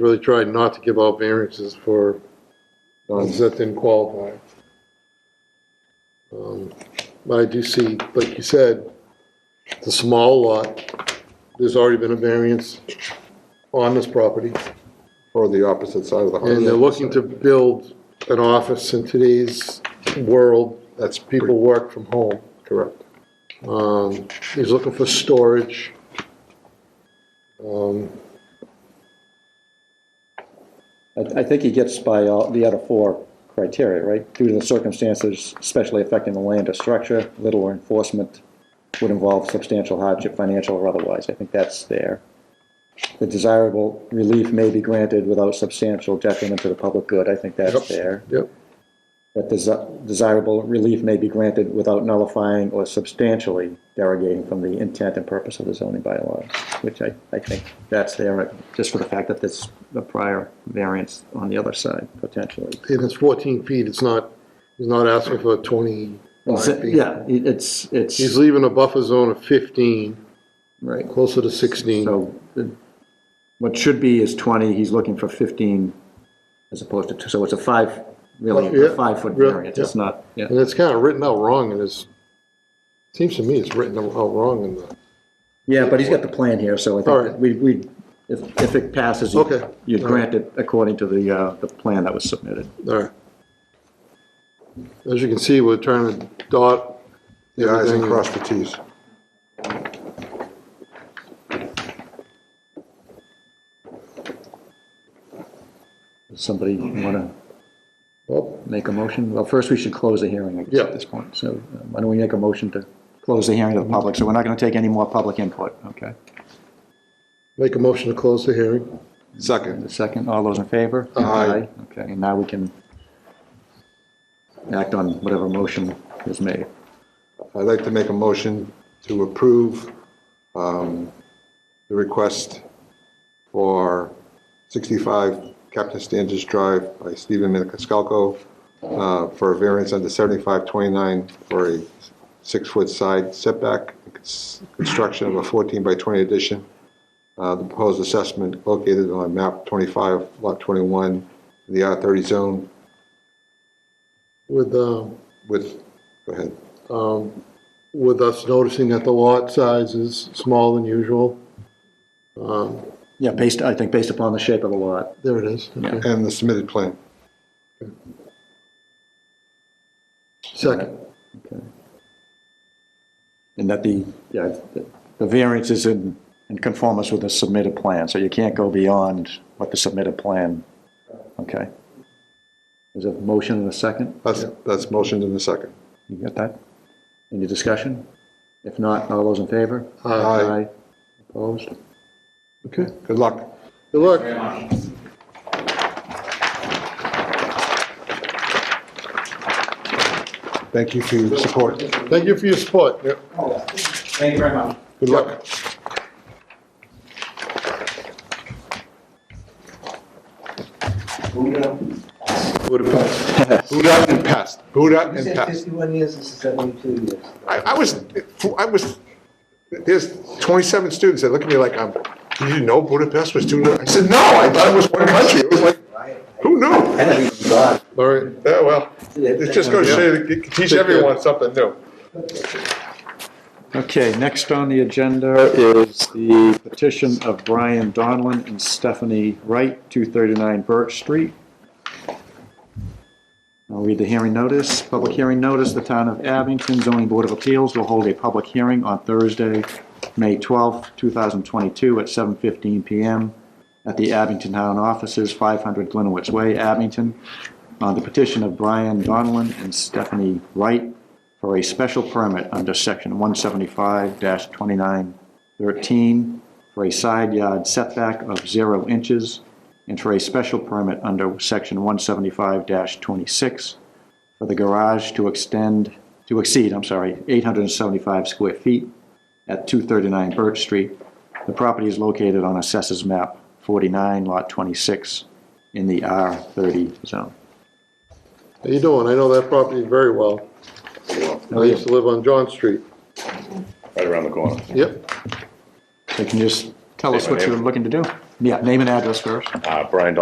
really tried not to give out variances for ones that didn't qualify. Um, But I do see, like you said, the small lot, there's already been a variance on this property. or the opposite side of the house. And they're looking to build an office in today's world, That's people people, work from home. correct. Um, he's looking for storage. Um, I, I think he gets by all the other four criteria, right? Due to the circumstances especially affecting the land or structure, little or enforcement would involve substantial hardship, financial or otherwise. I think that's there. The desirable relief may be granted without substantial detriment to the public good. I think Yep. that's there. Yep. That desi- desirable relief may be granted without nullifying or substantially derogating from the intent and purpose of the zoning bylaws, which I, I think that's there, uh, just for the fact that there's a prior variance on the other side, potentially. and it's fourteen feet, it's not, he's not asking for twenty-five feet. Yeah, it- it's, He's it's, leaving a buffer zone of fifteen, right. closer to sixteen. So the- what should be is 20, he's looking for 15 as opposed to, two. so it's a five, really, Yeah, a five-foot yeah, variance. It's not, yeah. And it's kind of written out wrong in his, seems to me it's written out wrong in the, Yeah, but he's got the plan here, so I All think right. that we, we, if, if it passes, you- Okay. you'd All right. grant it according to the, uh, the plan that was submitted. all right. As you can see, we're trying to dot. The i's and everything. cross the t's. Does Somebody wanna Well, make a motion? Well, first we should close the hearing, I guess, Yeah. at this point. So uh, why don't we make a motion to close the hearing to the public? So we're not gonna take any more public input, okay? Make a motion to close the hearing. Second. The second, all those in favor? Aye. Okay, and now we can act on whatever motion is made. I'd like to make a motion to approve um, the request for 65 Captain Standish Drive by Stephen Maniscalco uh, for a variance under 7529 for a six-foot side setback, cons- construction of a 14 by 20 addition. Uh, The proposed assessment located on map 25, lot 21, the R30 zone With, um, with, go ahead. um, with us noticing that the lot size is small than usual. Um, Yeah, based, I think based upon the shape of the lot. There it is. Okay. And the submitted plan. Second, Okay. And that the, yeah, the- the variance is in, in conformance with the submitted plan, so you can't go beyond what the submitted plan, okay? There's a motion and a second, That's, that's motioned in the second. you got that? Any discussion? If not, all those in favor? Aye. Opposed? Okay. Good luck. good luck. Thank you for your support. Thank you for your support. Thank you very much. Good luck. Buddha and pest, Buddha You and said pest. fifty-one years, this is seventy-two years. I, I was, I was, there's 27 students that look at me like, I'm, "Did you know Budapest was two? I said, no, I thought it was one country. It was like, who knew? All right, Yeah, well, it just goes to show you, you can teach everyone something new. Okay, next on the agenda is the petition of Brian Donlin and Stephanie Wright, 239 Birch Street. I'll read the hearing notice. Public hearing notice, the Town of Abington Zoning Board of Appeals will hold a public hearing on Thursday, May 12th, 2022, at 7:15 PM at the Abington Town Offices, 500 Glenowitz Way, Abington, on the petition of Brian Donlin and Stephanie Wright for a special permit under section 175-2913 for a side yard setback of zero inches and for a special permit under section 175-26 for the garage to extend, to exceed, I'm sorry, 875 square feet at 239 Birch Street. The property is located on Assessors Map 49, Lot 26, in the R30 zone. how you doing? I know that property very well. I used to live on John Street. right around the corner. Yep, So can you just tell us what you're looking to do? Yeah, name and address first. Uh, Brian Dawson,